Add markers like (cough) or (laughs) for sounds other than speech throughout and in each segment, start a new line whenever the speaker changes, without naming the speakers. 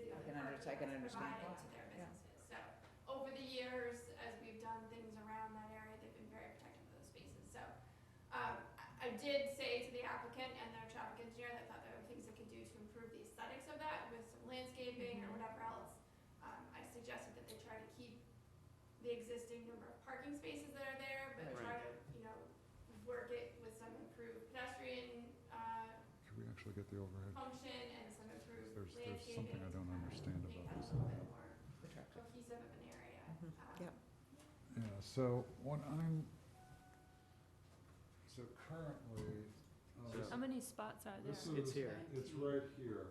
Which I can
that's
understand.
provided to their
Yeah.
businesses. So, over the years, as we've done things around that area, they've been very protective of those spaces, so. Um, I, I did say to the applicant and their traffic engineer that thought there were things they could do to improve the aesthetics of that with some landscaping or
Mm-hmm.
whatever else. Um, I suggested that they try to keep the existing number of parking spaces that are there, but try to, you know, work it with some improved pedestrian, uh,
Can we actually get the overhead?
function and some improved
There's,
landscaping.
there's something I don't understand
Make
about
that a
this.
little bit more
the traffic.
cohesive of an area.
Mhm.
Um,
Yep.
Yeah, so what I'm, so currently, uh,
So-
this-
How many spots are
this is,
there?
It's here.
it's right here.
No,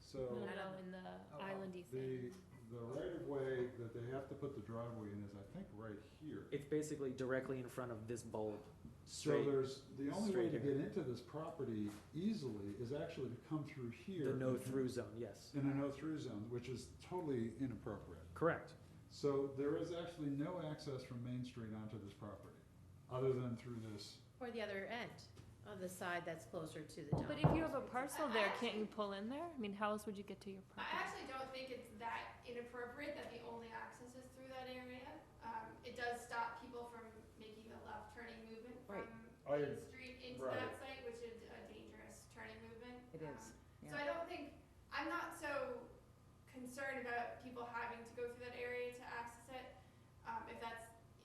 So
no, no, in the islandy
the,
thing.
the right of way that they have to put the driveway in is, I think, right here.
It's basically directly in front of this bulb.
So
Straight-
there's, the only way
straight
to
here.
get into this property easily is actually to come through here.
The no
and-
through zone, yes.
In a no-through zone, which is totally inappropriate.
Correct.
So there is actually no access from Main Street onto this property, other than through this.
Or the other end, on the side that's closer to the dump.
But if you have a parcel there, can't you pull in there? I mean, how else would you get to your
I
property?
actually don't think it's that inappropriate that the only access is through that area. Um, it does stop people from making the left turning movement
Right.
from
I-
Main Street into
right.
that site, which is a dangerous turning movement.
It
Um,
is,
So I don't think, I'm not so concerned about people having to go through that area to access it. Um, if that's,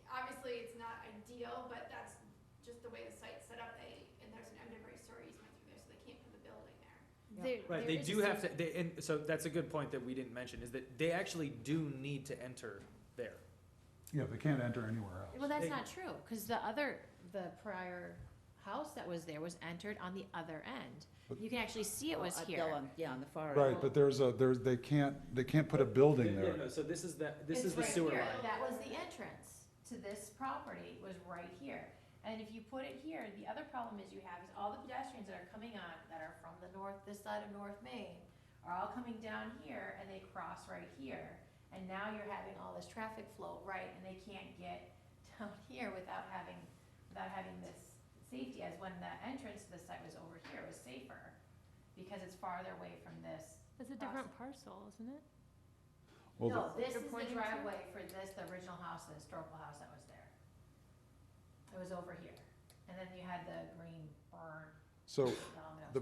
obviously, it's not ideal, but that's just the way the site's set up, they, and there's an underground sewer easement through there, so they can't put the building there.
There-
Right,
there
they
is
do have
some-
to, they, and so that's a good point that we didn't mention, is that they actually do need to enter there.
Yeah, they can't enter anywhere else.
Well, that's
They-
not true, because the other, the prior house that was there was entered on the other end.
But-
You can actually see it
Well,
was
uh,
here.
Bill on- Yeah, on the far.
Right,
end.
but there's a, there's, they can't, they can't put a building
Yeah,
there.
no, So this is that, this
It's
is the
right
sewer
here.
line.
That was the entrance to this property, was right here. And if you put it here, the other problem is you have is all the pedestrians that are coming on, that are from the north, this side of North Main, are all coming down here and they cross right here. And now you're having all this traffic flow right, and they can't get (laughs) down here without having, without having this safety, as when the entrance to the site was over here, it was safer, because it's farther away from this
It's a different parcel, isn't it?
Well, the-
no, this
You're
is the
pointing to?
driveway for this, the original house, the historical house that was there. It was over here, and then you had the green burn
So,
element.
Oh, the,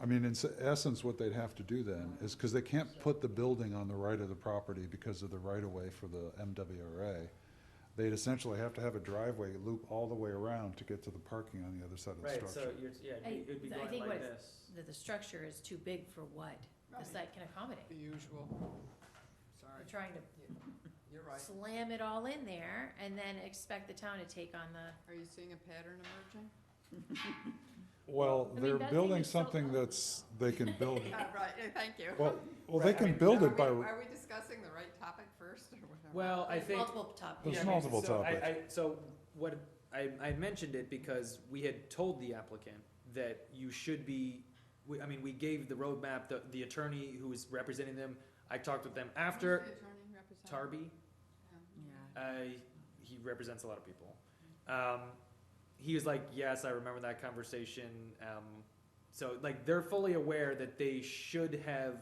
I mean, in s- essence, what they'd have to do then is, because they can't put the building on the right of the property because of the right-of-way for the MWRA, they'd essentially have to have a driveway loop all the way around to get to the parking on the other side of the
Right, so
structure.
you're, yeah,
I-
it would be
I
going
think Uh,
like
what
this.
The, the structure is too big for what the
Right.
site can accommodate.
The usual, sorry,
You're trying to
you're right.
slam it all in there and then expect the town to take on the,
Are you seeing a pattern emerging?
Well,
I mean,
they're
that thing
building
is so
something
ugly,
that's, they can build,
(laughs)
it.
Ah, Right, eh, thank you.
well, well, they
Right. I
can
mean,
build
Are
it by,
we- Are we discussing the right topic first or whatever?
Well, I
there's
think.
multiple topics.
There's
Yeah, I mean,
multiple
so I-
topics.
I- So what, I, I mentioned it because we had told the applicant that you should be, we, I mean, we gave the roadmap, the, the attorney who was representing them, I talked with them
Who's the
after,
attorney representing?
Tarby,
Yeah.
Yeah.
uh, he represents a lot of people. Um, he was like, yes, I remember that conversation, um, so like, they're fully aware that they should have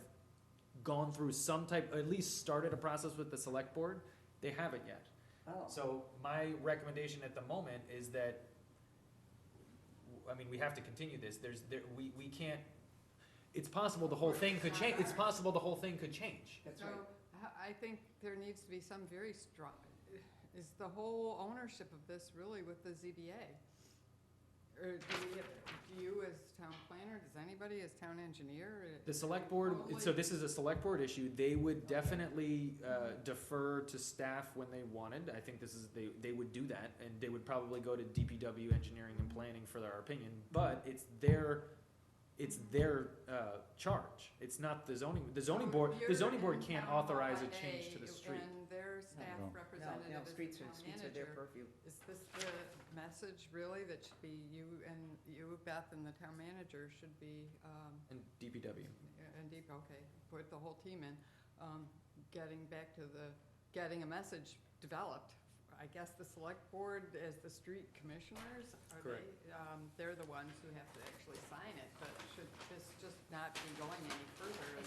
gone through some type, at least started a process with the select board, they haven't yet.
Oh.
So my recommendation at the moment is that, I mean, we have to continue this, there's, there, we, we can't, it's possible the whole thing could change, it's possible the whole thing could change.
That's
So,
right.
I- I think there needs to be some very strong, is the whole ownership of this really with the ZBA? Or do we have, do you as town planner, does anybody as town engineer? uh,
The select board, so this is a select board issue, they would definitely, uh, defer to staff when they wanted, I think this is, they, they would do that, and they would probably go to DPW engineering and planning for their opinion, but it's their, it's their, uh, charge, it's not the zoning, the zoning board, the zoning board can't authorize a change to the street.
And their staff
No,
No. No, no,
representative
no,
is the
streets are,
town
streets are their
manager.
purview.
Is this the message really that should be you and you, Beth, and the town manager should be, um,
And DPW.
and Deep, okay, put the whole team in, um, getting back to the, getting a message developed? I guess the select board as the street commissioners, are
Correct.
they, um, they're the ones who have to actually sign it, but should this just not be going any further?